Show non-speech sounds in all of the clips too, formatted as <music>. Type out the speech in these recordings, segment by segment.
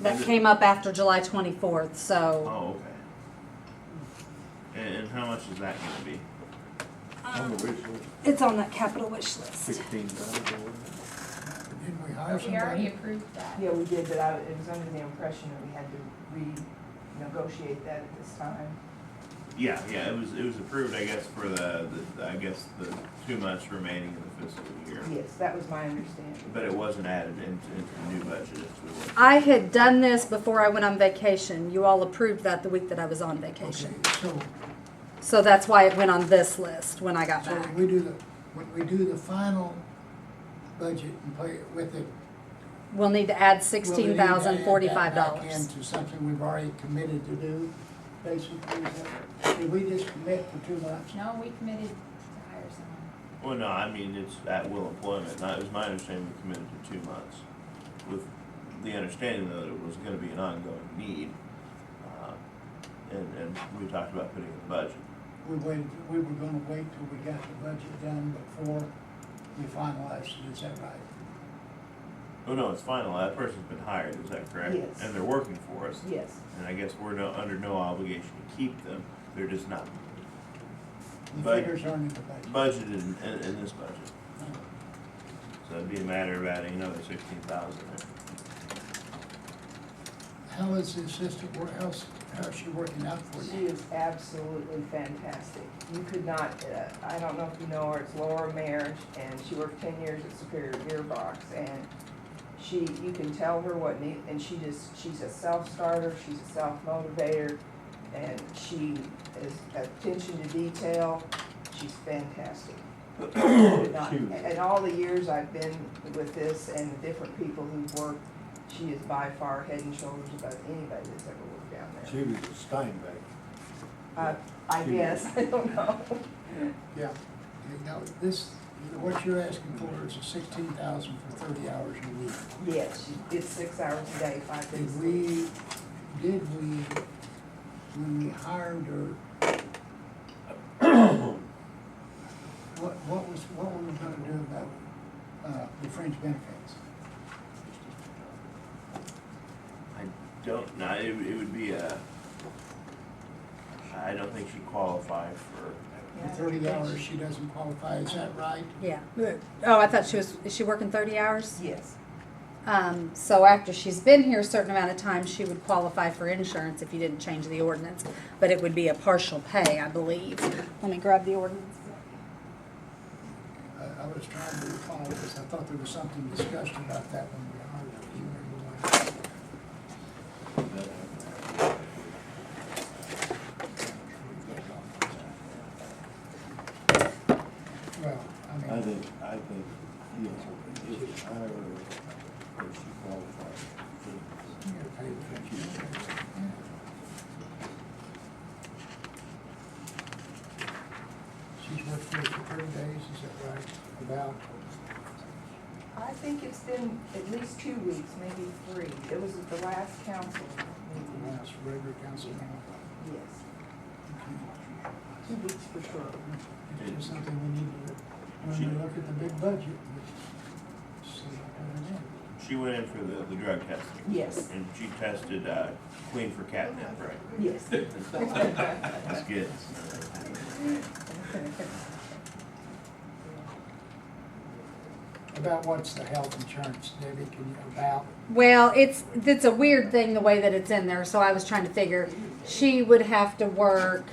That Is it- came up after July twenty-fourth, so. Oh, okay. And, and how much is that gonna be? On the wish It's on that capital wish list. sixteen thousand. Didn't we hire But we already somebody? approved that. Yeah, we did, but I, it was under the impression that we had to renegotiate that at this time. Yeah, yeah, it was, it was approved, I guess, for the, the, I guess, the two months remaining of the fiscal year. Yes, that was my understanding. But it wasn't added into, into the new budget, if we were. I had done this before I went on vacation. You all approved that the week that I was on Okay, vacation. so, So that's why it went on this list when I got so back. when we do the, when we do the final budget and play it with it. We'll need to add will we need sixteen to add that thousand forty-five back dollars. Into something we've already committed to do, basically, is that- did we just commit for two months? No, we committed to hire someone. Well, no, I mean, it's at will employment, not, it was my understanding we committed to two months, with the understanding that it was gonna be an ongoing need. Uh, And, and we talked about putting it in the budget. We waited, we were gonna wait till we got the budget done before we finalized it, is that right? Oh, no, it's final, that person's been hired, is that correct? Yes. And they're working for us, Yes, and I guess we're no, under no obligation to keep them, they're just not The But- figures aren't in the budget. budgeted in, in, in this budget. So it'd be a matter of adding another sixteen thousand. How is the assistant, wor- how's, how's she working out for she you? is absolutely fantastic. You could not, uh, I don't know if you know her, it's Laura Marriage, and she worked ten years at Superior Gearbox, and she, you can tell her what need, and she just, she's a self-starter, she's a self-motivator, and she is attention to detail, she's fantastic. Not- And all the years I've been with this and the different people who've worked, she is by far head and shoulders above anybody that's ever worked down there. She was a Steinbeck. Uh, I she- guess, <laughs> I don't know. Yeah, you know, this, what you're asking for is a sixteen thousand for thirty hours a week. Yes, she it's six hours a day, five days a Did we, week. did we, when we hired her, what, what was, what were we gonna do about, uh, the fringe benefits? I don't, know. it, it would be a, I don't think she'd qualify for, For thirty hours, she doesn't qualify, is that right? Yeah. Oh, I thought she was, is she working thirty hours? Yes, Um, so after she's been here a certain amount of time, she would qualify for insurance if you didn't change the ordinance. But it would be a partial pay, I believe. Let me grab the ordinance. Uh, I, I was trying to recall this, I thought there was something discussed about that when we hired her, Do you remember what? Well, I I mean, think, I think, you know, if you hire her, if she qualifies. you get paid for it. She's worked for us for thirty days, is that right? About, I think it's been at least two weeks, maybe three. It was at the last council the meeting. last regular council meeting. Yes, Okay. two weeks for sure. It's just something we need to, when we look at the big budget, see what it is. she went in for the, the drug testing. Yes. And she tested, uh, queen for catnip, right? <laughs> Yes. That's good. About what's the health insurance, Debbie, can you, about, Well, it's it's a weird thing the way that it's in there, so I was trying to figure she would have to work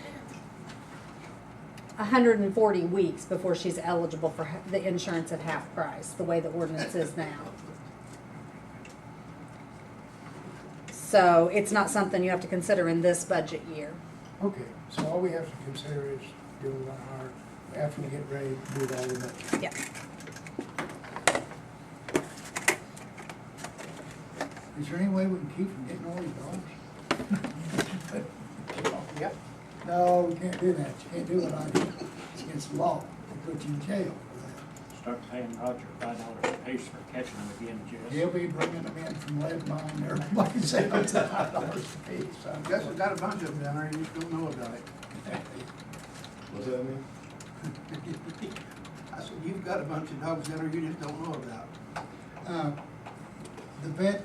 140 weeks before she's eligible for ha- the insurance at half price, the way the ordinance is now. So it's not something you have to consider in this budget year. okay, so all we have to consider is do we want to hire, after we get ready, to do all of it. Yeah. Is there any way we can keep from getting all these dogs? Yep. No, we can't do that, you can't do it, I, it's against the law, they put you in jail for that. Start paying Roger five dollars a piece for catching them again, He'll Jess. be bringing them in from lead mine, everybody's <laughs> out to five dollars a piece. so I'm Guess guessing we got a bunch of them down there, you just don't know about it. What's that mean? I said, you've got a bunch of dogs down there you just don't know about. Uh, The vet